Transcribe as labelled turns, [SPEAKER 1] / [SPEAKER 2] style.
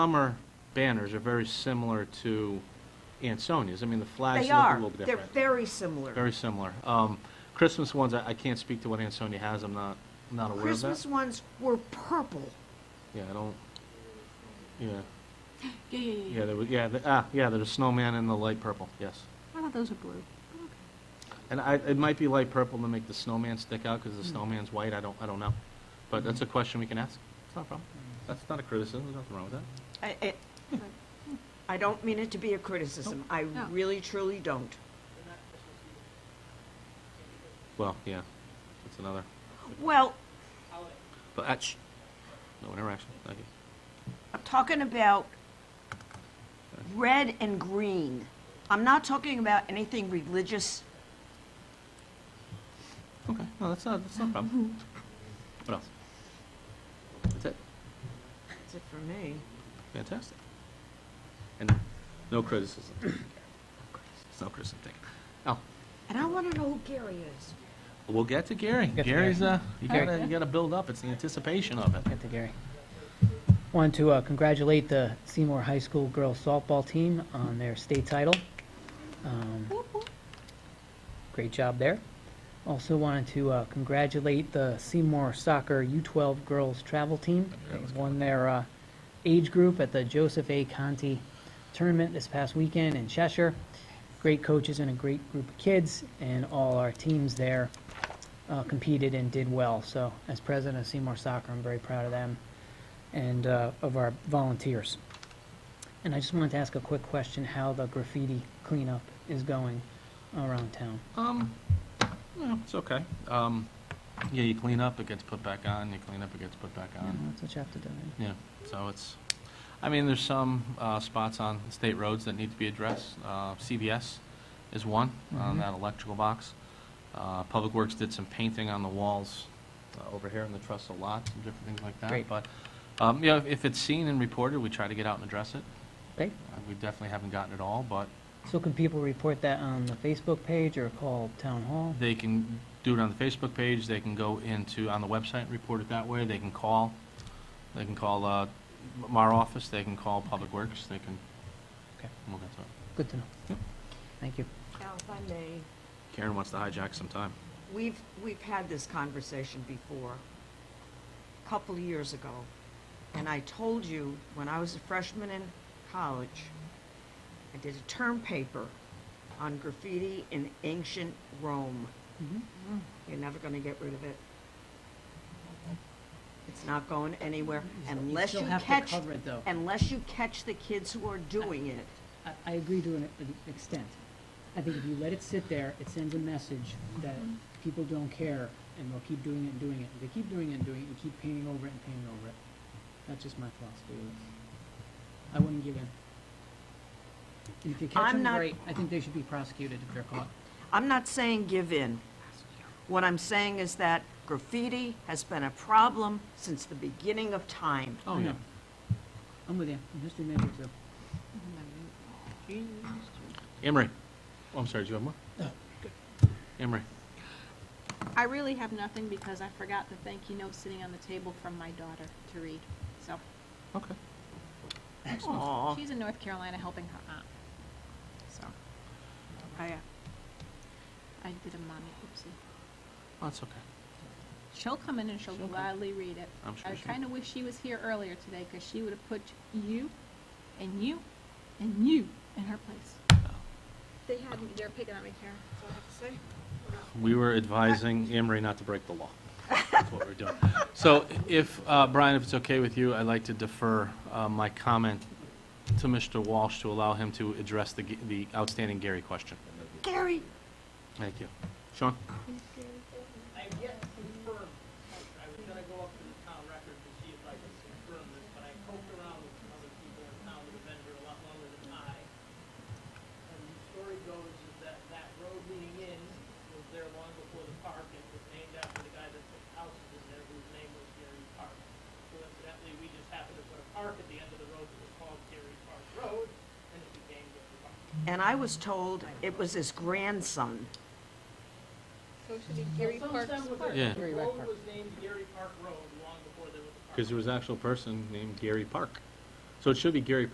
[SPEAKER 1] Summer banners are very similar to Ansonia's. I mean, the flags
[SPEAKER 2] They
[SPEAKER 1] look a
[SPEAKER 2] are.
[SPEAKER 1] little
[SPEAKER 2] They're
[SPEAKER 1] different.
[SPEAKER 2] very similar.
[SPEAKER 1] Very similar. Um, Christmas ones, I I can't speak to what Ansonia has, I'm not, not aware of
[SPEAKER 2] Christmas
[SPEAKER 1] that.
[SPEAKER 2] ones were purple.
[SPEAKER 1] Yeah, I don't, yeah,
[SPEAKER 3] Yeah, yeah, yeah,
[SPEAKER 1] yeah, there was, yeah, the- ah, yeah, there's a snowman in the light purple, yes.
[SPEAKER 3] I thought those were blue.
[SPEAKER 1] And I, it might be light purple to make the snowman stick out, because the
[SPEAKER 2] Hmm.
[SPEAKER 1] snowman's white, I don't, I don't know. But that's a question we can ask, it's not a problem. That's not a criticism, there's nothing wrong with that.
[SPEAKER 2] I, I- I don't mean it to be a criticism. I
[SPEAKER 3] No.
[SPEAKER 2] really truly don't.
[SPEAKER 1] Well, yeah, that's another,
[SPEAKER 2] Well,
[SPEAKER 1] but, ah, shh, no interaction, thank you.
[SPEAKER 2] I'm talking about red and green. I'm not talking about anything religious.
[SPEAKER 1] Okay, no, that's not, that's not a problem. What else? That's it,
[SPEAKER 2] That's it for me.
[SPEAKER 1] fantastic. And no criticism. It's no criticism, thank you. Oh,
[SPEAKER 2] And I want to know who Gary is.
[SPEAKER 1] we'll get to Gary.
[SPEAKER 4] Get to
[SPEAKER 1] Gary's, uh, you
[SPEAKER 4] Okay.
[SPEAKER 1] gotta, you gotta build up, it's the anticipation of it.
[SPEAKER 4] Get to Gary. Want to uh, congratulate the Seymour High School girls softball team on their state title. Um, Great job there. Also wanted to uh, congratulate the Seymour Soccer U12 girls travel team. They won their uh, age group at the Joseph A. Conti tournament this past weekend in Cheshire. Great coaches and a great group of kids, and all our teams there uh, competed and did well. So, as president of Seymour Soccer, I'm very proud of them and uh, of our volunteers. And I just wanted to ask a quick question: How the graffiti cleanup is going around town?
[SPEAKER 1] Um, no, it's okay. Um, yeah, you clean up, it gets put back on, you clean up, it gets put back
[SPEAKER 4] You know,
[SPEAKER 1] on.
[SPEAKER 4] that's what you have to do. right?
[SPEAKER 1] Yeah, so it's, I mean, there's some uh, spots on state roads that need to be addressed. Uh, CVS is one, on
[SPEAKER 4] Mhm.
[SPEAKER 1] that electrical box. Uh, Public Works did some painting on the walls uh, over here in the trestle lot, and different things like that.
[SPEAKER 4] Great.
[SPEAKER 1] But, um, you know, if it's seen and reported, we try to get out and address it.
[SPEAKER 4] Okay.
[SPEAKER 1] Uh, We definitely haven't gotten it all, but
[SPEAKER 4] So, can people report that on the Facebook page or call town hall?
[SPEAKER 1] They can do it on the Facebook page, they can go into, on the website, and report it that way, they can call, they can call, uh, m- our office, they can call Public Works, they can.
[SPEAKER 4] Okay.
[SPEAKER 1] We'll get to it.
[SPEAKER 4] Good to know.
[SPEAKER 1] Yep.
[SPEAKER 4] Thank you.
[SPEAKER 2] Now, Oh, if I may,
[SPEAKER 1] Karen wants to hijack some time.
[SPEAKER 2] we've, we've had this conversation before, a couple of years ago. And I told you, when I was a freshman in college, I did a term paper on graffiti in ancient Rome.
[SPEAKER 4] Mm-hmm.
[SPEAKER 2] You're never gonna get rid of it. It's not going anywhere unless you catch,
[SPEAKER 4] it though.
[SPEAKER 2] unless you catch the kids who are doing it.
[SPEAKER 4] I, I agree to an an extent. I think if you let it sit there, it sends a message that people don't care, and they'll keep doing it and doing it. If they keep doing it and doing it, you keep painting over it and painting over it. That's just my philosophy with it. I wouldn't give in. And if you catch
[SPEAKER 2] I'm
[SPEAKER 4] them,
[SPEAKER 2] not-
[SPEAKER 4] great, I think they should be prosecuted if they're caught.
[SPEAKER 2] I'm not saying give in. What I'm saying is that graffiti has been a problem since the beginning of time.
[SPEAKER 1] Oh,
[SPEAKER 4] I
[SPEAKER 1] yeah.
[SPEAKER 4] know. I'm with you, and history major too.
[SPEAKER 1] Emery, oh, I'm sorry, do you have more? No. Emery,
[SPEAKER 3] I really have nothing because I forgot the thank you note sitting on the table from my daughter to read. So,
[SPEAKER 1] okay.
[SPEAKER 2] Aw,
[SPEAKER 3] she's in North Carolina helping her aunt. So, I, uh, I did a mommy oopsie.
[SPEAKER 1] That's okay.
[SPEAKER 3] She'll come in and she'll
[SPEAKER 1] She'll come.
[SPEAKER 3] gladly read it.
[SPEAKER 1] I'm sure
[SPEAKER 3] I
[SPEAKER 1] she
[SPEAKER 3] kind of wish she was here earlier today because she would have put you and you and you in her place. They had, they're picking on me, Karen, so I have to say.
[SPEAKER 1] We were advising Emery not to break the law. That's what we're doing. So if, uh, Brian, if it's okay with you, I'd like to defer uh, my comment to Mr. Walsh to allow him to address the g- the outstanding Gary question.
[SPEAKER 2] Gary,
[SPEAKER 1] Thank you. Sean?
[SPEAKER 5] I have yet to confirm, I was gonna go up to the town record to see if I could confirm this, but I poked around with some other people in town that have been here a lot longer than I. And the story goes is that that road leading in was there long before the park, and was named after the guy that put houses in there whose name was Gary Park. Coincidentally, we just happened to put a park at the end of the road that was called Gary Park Road, and it became Gary Park.
[SPEAKER 2] and I was told it was his grandson.
[SPEAKER 3] So it should be Gary Parks
[SPEAKER 5] Sometime
[SPEAKER 3] Park.
[SPEAKER 1] Yeah.
[SPEAKER 5] with the, the road was named Gary Park Road long before there was a park.
[SPEAKER 1] Because there was an actual person named Gary Park So it should be Gary